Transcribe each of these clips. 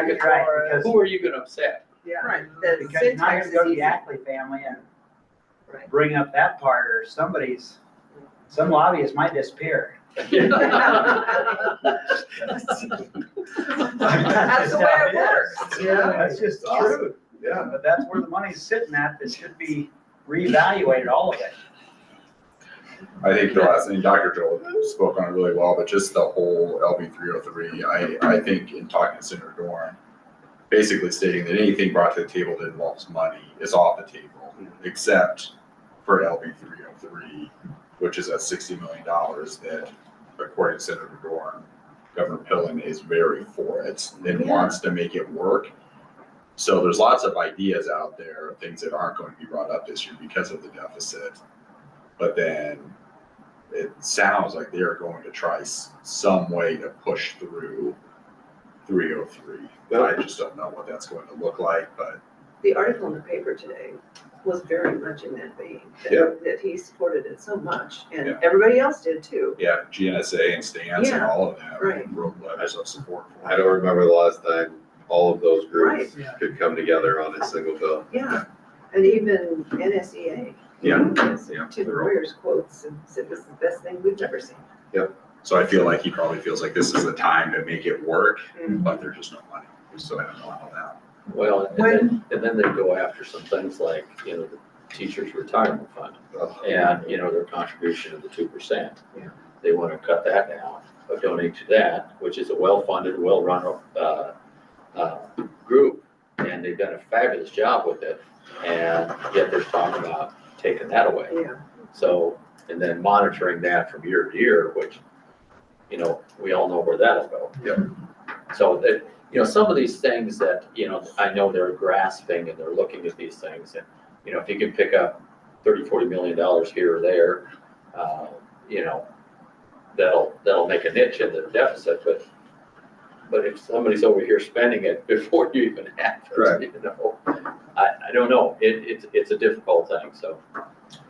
That's right, because, Who are you gonna upset? Yeah. Right, the because now syntax you is go to easy. the Ackley family and Right. bring up that part, or somebody's, some lobbyist might disappear. That's the way it works, yeah. That's just true, Awesome. Yeah. but that's where the money's sitting at, that should be reevaluated, all of it. I think the last thing Dr. Joel spoke on it really well, but just the whole LB three oh three, I, I think in talking to Senator Dorn, basically stating that anything brought to the table that involves money is off the table, except for LB three oh three, which is at sixty million dollars that, according to Senator Dorn, Governor Pillen is very for it and Yeah. wants to make it work. So there's lots of ideas out there, of things that aren't going to be brought up this year because of the deficit. But then it sounds like they're going to try s- some way to push through 303. I just don't know what that's going to look like, but the article in the paper today was very much in that vein. that- Yep. That he supported it so much, and Yeah. everybody else did too. yeah, GNSA and stance and Yeah, all of that right. wrote letters of support for I it. don't remember the last time all of those groups Right. could come together on a single bill. Yeah, and even NSEA. Yeah, yeah. To the lawyers' quotes and said this is the best thing we've ever seen. So I feel like he probably feels like this is the time to make it work, Mhm. but there's just no money. So I don't know how that. Well, and then, and then they go after some things like, you know, the teacher's retirement fund Ugh. and, you know, their contribution of the two percent. Yeah. They wanna cut that down, or donate to that, which is a well-funded, well-run, uh, uh, group. And they've done a fabulous job with it, and yet there's talk about taking that away. Yeah, So, and then monitoring that from year to year, which, you know, we all know where that'll go. Yep. So that, you know, some of these things that, you know, I know they're grasping and they're looking at these things and, you know, if you can pick up thirty, forty million dollars here or there, uh, you know, that'll, that'll make a niche in the deficit, but, but if somebody's over here spending it before you even have Right. it, you know, I, I don't know. It, it's, it's a difficult thing, so.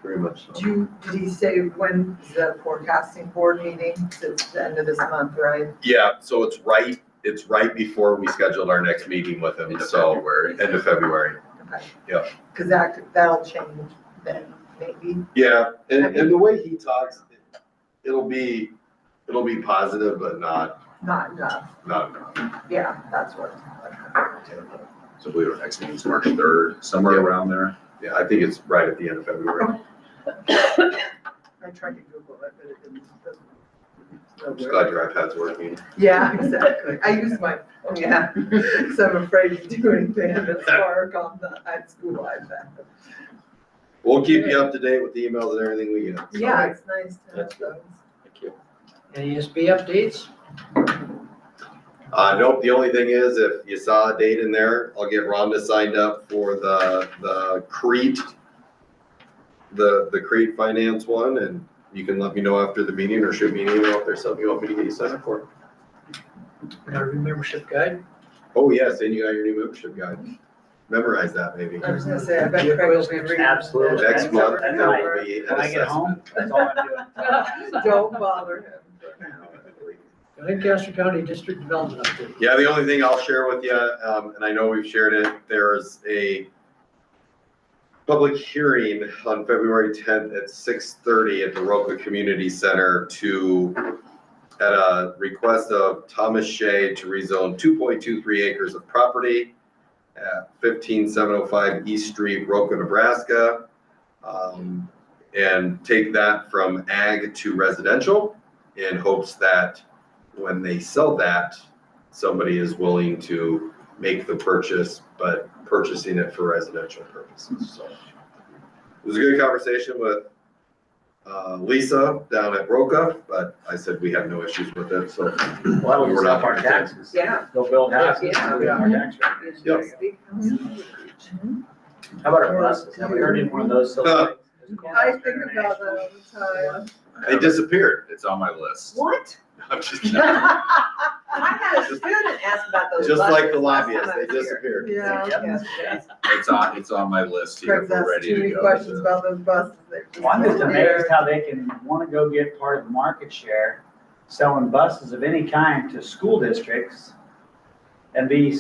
Very much so. Do you, did he say when is the forecasting board meeting? It's the end of this month, right? Yeah, so it's right, it's right before we scheduled our next meeting with him, End of so. February. End of February. Okay. Yeah. Cause that, that'll change then, maybe. Yeah, and, and the way he talks, it'll be, it'll be positive, but not, Not enough. not enough. Yeah, that's what. So I believe our next meeting's March third, somewhere Yep. around there. Yeah, I think it's right at the end of February. I tried to Google it, but it didn't. I'm just glad your iPad's working. Yeah, exactly. I use my, oh yeah, so I'm afraid to do anything that's work on the, at school iPad. We'll keep you up to date with the emails and everything we get. Yeah, it's nice to have That's those. Thank you. ASB updates? Uh, nope, the only thing is, if you saw a date in there, I'll get Rhonda signed up for the, the Crete, the, the Crete finance one, and you can let me know after the meeting, or shoot me an email if there's something you want me to get you signed up for. Our membership guide? Oh, yes, and you got your new membership guide. Memorize that, maybe. I was gonna say, I bet Craig will be reading. that. Absolutely. Next month, That's that right. will be an When I get home, assessment. that's all I'm doing. Don't bother Lancaster County District Development Update. Yeah, the only thing I'll share with you, um, and I know we've shared it, there's a public hearing on February tenth at six thirty at the Roca Community Center to, at a request of Thomas Shea to rezone two point two three acres of property at fifteen seven oh five East Street, Roca, Nebraska. Um, and take that from ag to residential in hopes that when they sell that, somebody is willing to make the purchase, but purchasing it for residential purposes, so. It was a good conversation with, uh, Lisa down at Roca, but I said we have no issues with it, so. Well, We're not our gonna- taxes. yeah. Go build houses. Yeah. Build our tax rate. Yep. Big Mm-hmm. house. How about our buses? Have we heard any more of those? silly Uh, things? I think about that all the It disappeared. It's on my list. What? I'm just kidding. time. I had a student ask about those. Just like the buses last time lobbyists, I they was here. disappeared. Yeah. Yeah. It's on, it's on my list here. Craig's We're asked ready too to many go. questions about those buses. They're just- Well, I'm just amazed how they can wanna go get part of the market share, selling buses of any kind to school districts and be